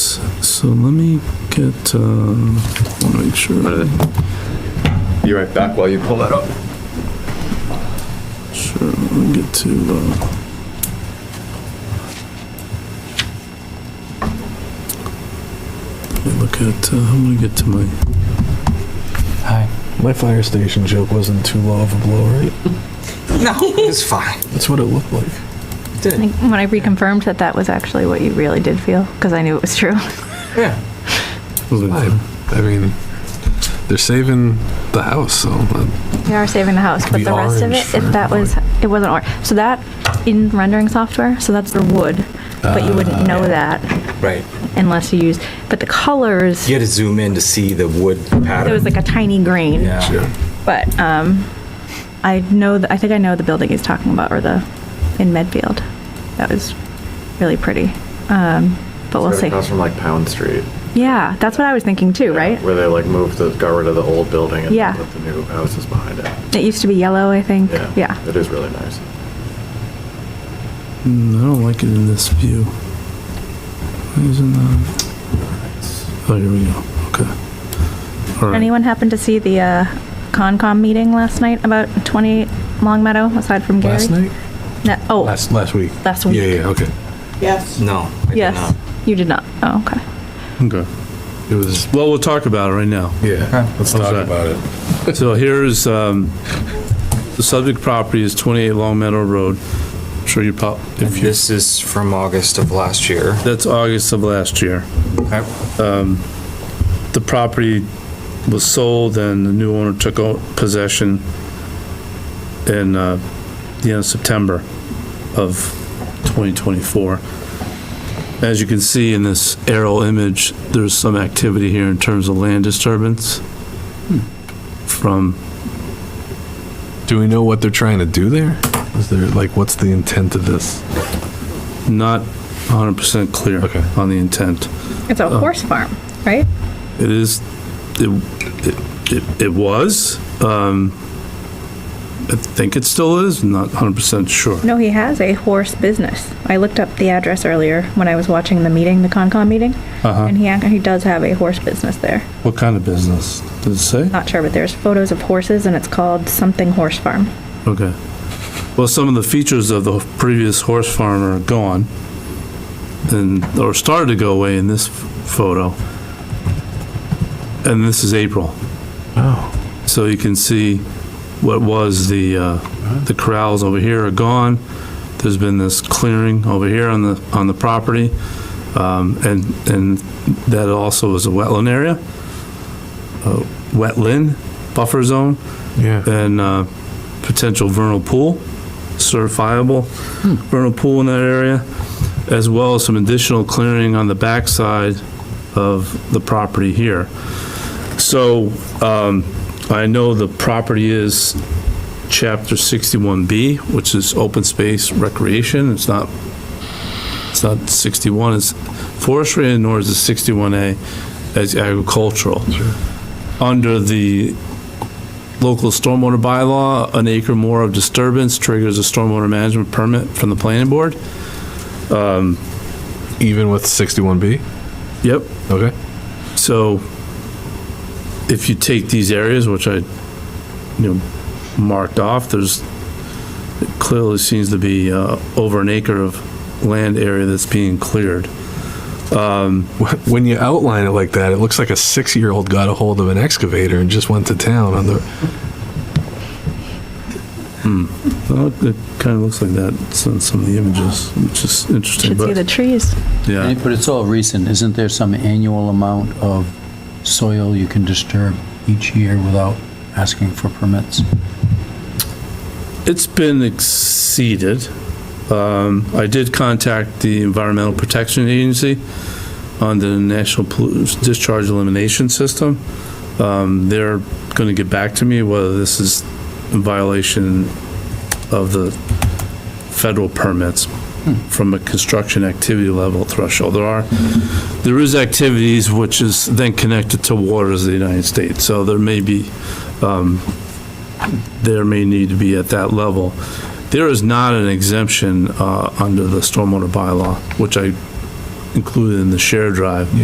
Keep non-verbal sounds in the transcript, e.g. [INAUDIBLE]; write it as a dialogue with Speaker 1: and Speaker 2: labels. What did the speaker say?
Speaker 1: So let me get, uh, want to make sure,
Speaker 2: Be right back while you pull that up.
Speaker 1: sure, let me get to, uh, let me look at, uh, I'm gonna get to my,
Speaker 3: Hi.
Speaker 4: My fire station joke wasn't too low of a blow, right?
Speaker 3: [LAUGHS] No, it's fine.
Speaker 4: That's what it looked like.
Speaker 3: Did
Speaker 5: I think when I reconfirmed that that was actually what you really did feel, because I knew it was true. [LAUGHS]
Speaker 3: Yeah.
Speaker 6: I mean, they're saving the house, so uh,
Speaker 5: We are saving the house, but
Speaker 6: be
Speaker 5: the rest of
Speaker 6: orange
Speaker 5: it, if
Speaker 6: for
Speaker 5: that was, it wasn't orange. So that, in rendering software, so that's the wood, but you wouldn't know that
Speaker 3: Right.
Speaker 5: unless you used, but the colors,
Speaker 3: You had to zoom in to see the wood pattern.
Speaker 5: there was like a tiny grain.
Speaker 3: yeah.
Speaker 5: But, um, I know, th- I think I know the building he's talking about, or the, in Medfield. That was really pretty. Um, but we'll
Speaker 2: Right
Speaker 5: see.
Speaker 2: Across from like Pound Street.
Speaker 5: Yeah, that's what I was thinking too, right?
Speaker 2: Where they like moved the, got rid of the old building and
Speaker 5: Yeah.
Speaker 2: put the new houses behind it.
Speaker 5: It used to be yellow, I think.
Speaker 2: Yeah.
Speaker 5: Yeah.
Speaker 2: It is really nice.
Speaker 1: mm, I don't like it in this view. Why Isn't that? Oh, here we go, okay. All right.
Speaker 5: Anyone happen to see the uh, Concom meeting last night about 20 Long Meadow, aside from Gary?
Speaker 6: last night?
Speaker 5: No, oh, last,
Speaker 6: Last, last week.
Speaker 5: week.
Speaker 6: Yeah, yeah, okay.
Speaker 7: Yes.
Speaker 3: No. I did
Speaker 5: Yes.
Speaker 3: not.
Speaker 5: You did not. Oh, okay.
Speaker 1: Okay.
Speaker 6: It was,
Speaker 1: Well, we'll talk about it right now.
Speaker 6: yeah, let's
Speaker 1: How's
Speaker 6: talk
Speaker 1: that?
Speaker 6: about
Speaker 1: [LAUGHS]
Speaker 6: it.
Speaker 1: So here's, um, the subject property is 28 Long Meadow Road. I'm Sure you prob,
Speaker 3: And
Speaker 1: if you,
Speaker 3: this is from August of last year.
Speaker 1: that's August of last year.
Speaker 3: Okay.
Speaker 1: The property was sold and the new owner took o- possession in, uh, the end of September of 2024. As you can see in this aerial image, there's some activity here in terms of land disturbance from
Speaker 6: Do we know what they're trying to do there? Is there, like, what's the intent of this?
Speaker 1: not 100% clear
Speaker 6: Okay.
Speaker 1: on the intent.
Speaker 5: It's
Speaker 6: Oh.
Speaker 5: a horse farm, right?
Speaker 1: It is, it, it- it, it was, um, I think it still is, not 100% sure.
Speaker 5: No, he has a horse business. I looked up the address earlier when I was watching the meeting, the Concom meeting,
Speaker 6: Uh-huh.
Speaker 5: and he ac- he does have a horse business there.
Speaker 1: Uh-huh. What kind of business? Does it say?
Speaker 5: Not sure, but there's photos of horses, and it's called something horse farm.
Speaker 1: Okay. Well, some of the features of the previous horse farm are gone and, or started to go away in this photo. And this is April.
Speaker 6: Oh,
Speaker 1: So you can see what was the, uh, the corrals over here are gone. There's been this clearing over here on the, on the property. Um, and, and that also is a wetland area, uh, wetland buffer zone
Speaker 6: yeah.
Speaker 1: and uh, potential vernal pool, certifiable vernal pool in that area, as well as some additional clearing on the backside of the property here. So um, I know the property is Chapter 61B, which is open space recreation. It's not, it's not 61, it's forestry, nor is it 61A as agricultural. Under the local stormwater bylaw, an acre more of disturbance triggers a stormwater management permit from the planning board.
Speaker 6: Even with 61B?
Speaker 1: Yep.
Speaker 6: Okay.
Speaker 1: So if you take these areas, which I, you know, marked off, there's, it clearly seems to be uh, over an acre of land area that's being cleared.
Speaker 6: Wh- When you outline it like that, it looks like a six-year-old got a hold of an excavator and just went to town on the,
Speaker 1: Well, it kind of looks like that in some of the images, which is interesting,
Speaker 5: Should see the
Speaker 1: but,
Speaker 5: trees.
Speaker 1: yeah.
Speaker 7: But it's all recent. Isn't there some annual amount of soil you can disturb each year without asking for permits?
Speaker 1: It's been exceeded. Um, I did contact the Environmental Protection Agency on the National Pollu- Discharge Elimination System. Um, They're going to get back to me whether this is in violation of the federal permits from a construction activity level threshold. There are, there is activities which is then connected to waters of the United States, so there may be there may need to be at that level. There is not an exemption uh, under the stormwater bylaw, which I included in the share drive.